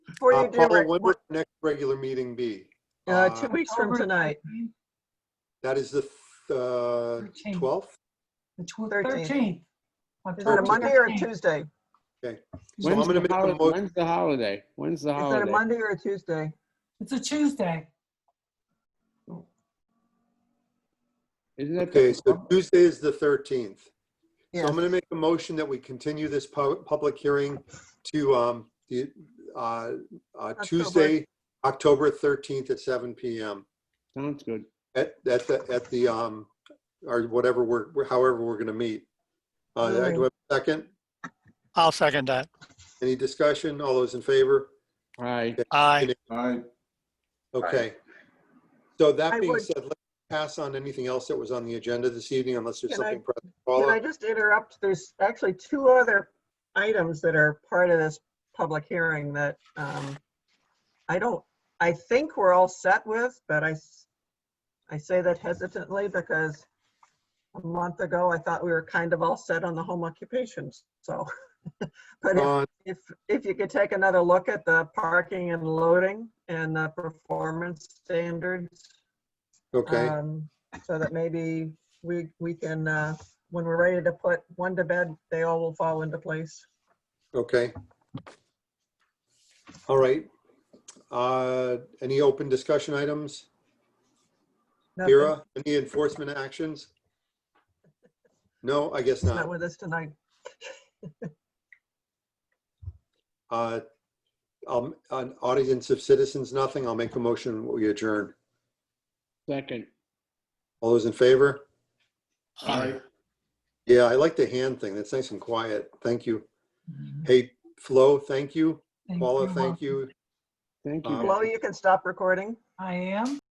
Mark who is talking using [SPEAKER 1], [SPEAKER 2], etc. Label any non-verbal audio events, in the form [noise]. [SPEAKER 1] Before
[SPEAKER 2] Uh,
[SPEAKER 1] you do,
[SPEAKER 2] Paula,
[SPEAKER 1] Rick,
[SPEAKER 2] when would the next regular meeting be?
[SPEAKER 1] uh,
[SPEAKER 2] Uh,
[SPEAKER 1] two weeks from tonight,
[SPEAKER 2] That is the uh, 12th?
[SPEAKER 3] The
[SPEAKER 1] Thirteenth.
[SPEAKER 3] thirteenth.
[SPEAKER 1] is it a Monday or a Tuesday? Is
[SPEAKER 2] So I'm
[SPEAKER 4] When's
[SPEAKER 2] gonna
[SPEAKER 4] the
[SPEAKER 2] make a
[SPEAKER 4] holi-
[SPEAKER 2] mo-
[SPEAKER 4] when's the holiday? When's the
[SPEAKER 1] that a
[SPEAKER 4] holiday?
[SPEAKER 1] Monday or a Tuesday?
[SPEAKER 3] It's a Tuesday.
[SPEAKER 4] Isn't that
[SPEAKER 2] Okay,
[SPEAKER 4] the,
[SPEAKER 2] so Tuesday is the 13th. So
[SPEAKER 1] Yes.
[SPEAKER 2] I'm going to make a motion that we continue this pu- public hearing to um, the uh, uh, Tuesday, October 13th at 7 PM
[SPEAKER 4] sounds good.
[SPEAKER 2] at, at the, at the, um, or whatever we're, however we're going to meet. Uh, Do I have a second?
[SPEAKER 5] I'll second that.
[SPEAKER 2] Any discussion? All those in favor?
[SPEAKER 4] All right,
[SPEAKER 5] Aye.
[SPEAKER 6] Aye.
[SPEAKER 2] Okay. So
[SPEAKER 1] I
[SPEAKER 2] that being
[SPEAKER 1] would-
[SPEAKER 2] said, let's pass on anything else that was on the agenda this evening unless there's
[SPEAKER 1] Can I-
[SPEAKER 2] something. pressing.
[SPEAKER 1] Can I
[SPEAKER 2] Paula,
[SPEAKER 1] just interrupt? There's actually two other items that are part of this public hearing that um, I don't, I think we're all set with, but I, s- I say that hesitantly because a month ago, I thought we were kind of all set on the home occupations, so. [laughs] But if-
[SPEAKER 2] on-
[SPEAKER 1] if, if you could take another look at the parking and loading and the performance standards,
[SPEAKER 2] Okay.
[SPEAKER 1] um, so that maybe we, we can, uh, when we're ready to put one to bed, they all will fall into place.
[SPEAKER 2] Okay. All right. Uh Any open discussion items?
[SPEAKER 1] Nothing-
[SPEAKER 2] Vera, any enforcement actions? No, I guess
[SPEAKER 1] Not
[SPEAKER 2] not.
[SPEAKER 1] with us tonight.
[SPEAKER 2] Uh um, An audience of citizens, nothing. I'll make a motion. We adjourn.
[SPEAKER 4] second.
[SPEAKER 2] All those in favor?
[SPEAKER 6] Aye.
[SPEAKER 2] Yeah, I like the hand thing. That's nice and quiet. Thank you. Hey, Flo, thank you. Mm-hmm.
[SPEAKER 3] Thank
[SPEAKER 2] Paula,
[SPEAKER 3] you.
[SPEAKER 2] thank you.
[SPEAKER 4] Thank you.
[SPEAKER 2] Um,
[SPEAKER 4] guys.
[SPEAKER 1] Hello, you can stop recording.
[SPEAKER 3] I am.